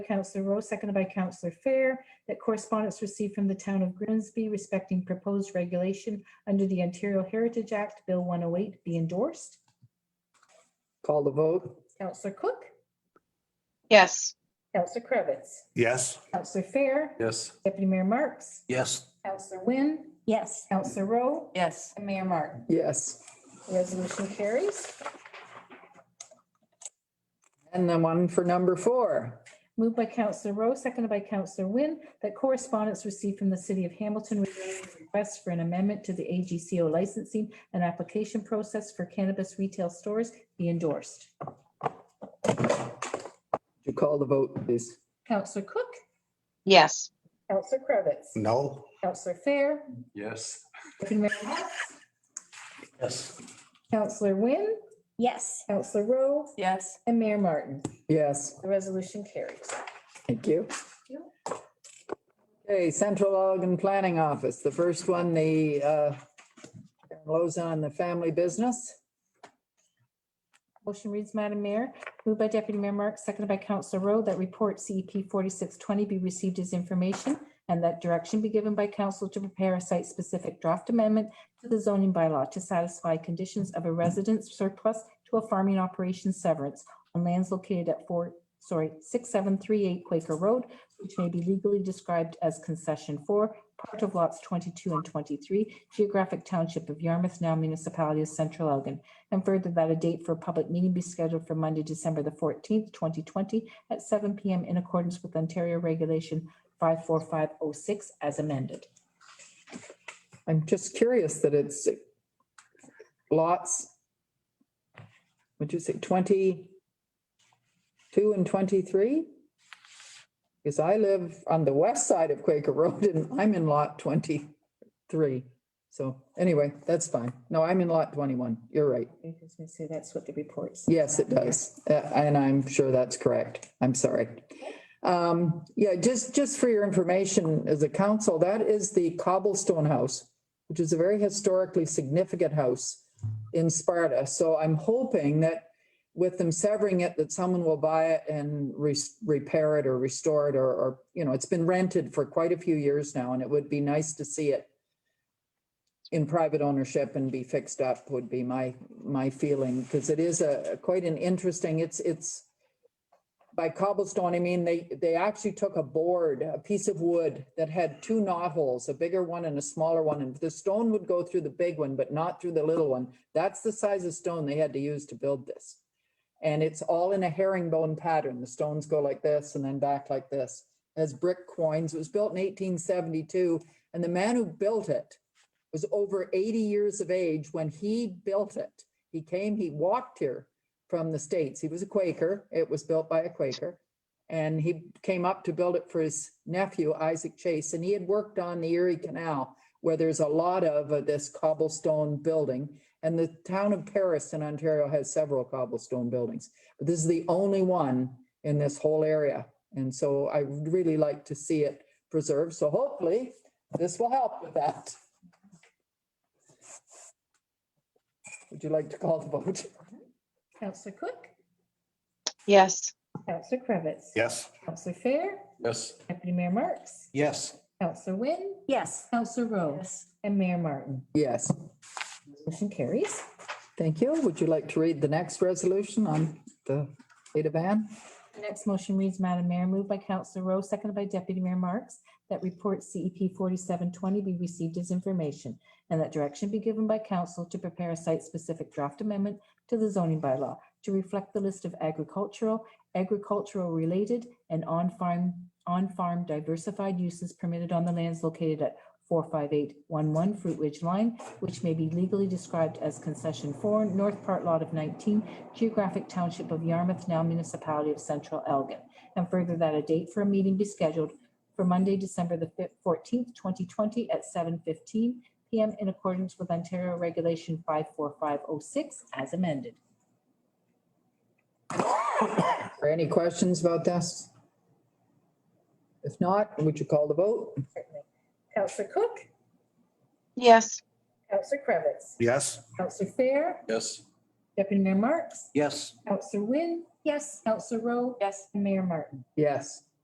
Counselor Rowe, seconded by Counselor Fair, that correspondence received from the town of Grimsby respecting proposed regulation under the Ontario Heritage Act, Bill 108, be endorsed. Call the vote? Counselor Cook, Yes, Counselor Cravitz, Yes. Counselor Fair, Yes. Deputy Mayor Marks, Yes. Counselor Wynne, Yes. Counselor Rowe, Yes. and Mayor Martin. Yes. Resolution carries. And the one for number four. Moved by Counselor Rowe, seconded by Counselor Wynne, that correspondence received from the city of Hamilton regarding a request for an amendment to the AGCO licensing and application process for cannabis retail stores be endorsed. Would You call the vote, please. Counselor Cook, yes, Counselor Cravitz, No. Counselor Fair, Yes. Deputy Mayor Marks, Yes. Counselor Wynne, Yes. Counselor Rowe, Yes. and Mayor Martin. Yes, The resolution carries. thank you. Okay, Central Oregon Planning Office, the first one, the uh, Karen Lozon on the family business. Motion reads, Madam Mayor, moved by Deputy Mayor Marks, seconded by Counselor Rowe, that report CEP forty-six twenty be received as information and that direction be given by council to prepare a site-specific draft amendment to the zoning bylaw to satisfy conditions of a residence surplus to a farming operation severance on lands located at four, sorry, six seven three eight Quaker Road, which may be legally described as concession four, part of lots twenty-two and twenty-three, geographic township of Yarmouth, now municipality of Central Elgin. And further, that a date for a public meeting be scheduled for Monday, December the fourteenth, twenty twenty, at seven PM in accordance with Ontario Regulation five four five oh six as amended. I'm just curious that it's lots, would you say 22 and 23? Because I live on the west side of Quaker Road and I'm in lot 23. So anyway, that's fine. No, I'm in lot 21. You're right. I was gonna say, that's what the report says. Yes, it does. Uh, And I'm sure that's correct. I'm sorry. Um, Yeah, just, just for your information as a council, that is the cobblestone house, which is a very historically significant house in Sparta. So I'm hoping that with them severing it, that someone will buy it and re- repair it or restore it or, or, you know, it's been rented for quite a few years now and it would be nice to see it in private ownership and be fixed up would be my, my feeling, because it is a, quite an interesting, it's, it's by cobblestone, I mean, they, they actually took a board, a piece of wood that had two knotholes, a bigger one and a smaller one, and the stone would go through the big one, but not through the little one. That's the size of stone they had to use to build this. And it's all in a herringbone pattern. The stones go like this and then back like this as brick coins. It was built in eighteen seventy-two, and the man who built it was over 80 years of age when he built it. He came, he walked here from the States. He was a Quaker. It was built by a Quaker. And he came up to build it for his nephew, Isaac Chase. And he had worked on the Erie Canal, where there's a lot of uh, this cobblestone building. And the town of Paris in Ontario has several cobblestone buildings. But this is the only one in this whole area. And so I would really like to see it preserved. So hopefully this will help with that. Would you like to call the vote? Counselor Cook, yes, Counselor Cravitz. Yes. Counselor Fair, Yes. Deputy Mayor Marks, Yes. Counselor Wynne, Yes. Counselor Rowe, and Mayor Martin. Yes, Motion carries. thank you. Would you like to read the next resolution on the data ban? The next motion reads, Madam Mayor, moved by Counselor Rowe, seconded by Deputy Mayor Marks, that report CEP forty-seven twenty be received as information and that direction be given by council to prepare a site-specific draft amendment to the zoning bylaw to reflect the list of agricultural, agricultural-related, and on-farm, on-farm diversified uses permitted on the lands located at four five eight one one Fruit Ridge Line, which may be legally described as concession four, north part lot of nineteen, geographic township of Yarmouth, now municipality of Central Elgin. And further that a date for a meeting be scheduled for Monday, December the fourteenth, twenty twenty at seven fifteen PM in accordance with Ontario Regulation five four five oh six as amended. Are any questions about this? If not, would you call the vote? Counselor Cook, yes, Counselor Cravitz, Yes. Counselor Fair, Yes. Deputy Mayor Marks, Yes. Counselor Wynne, Yes. Counselor Rowe, Yes. and Mayor Martin. Yes,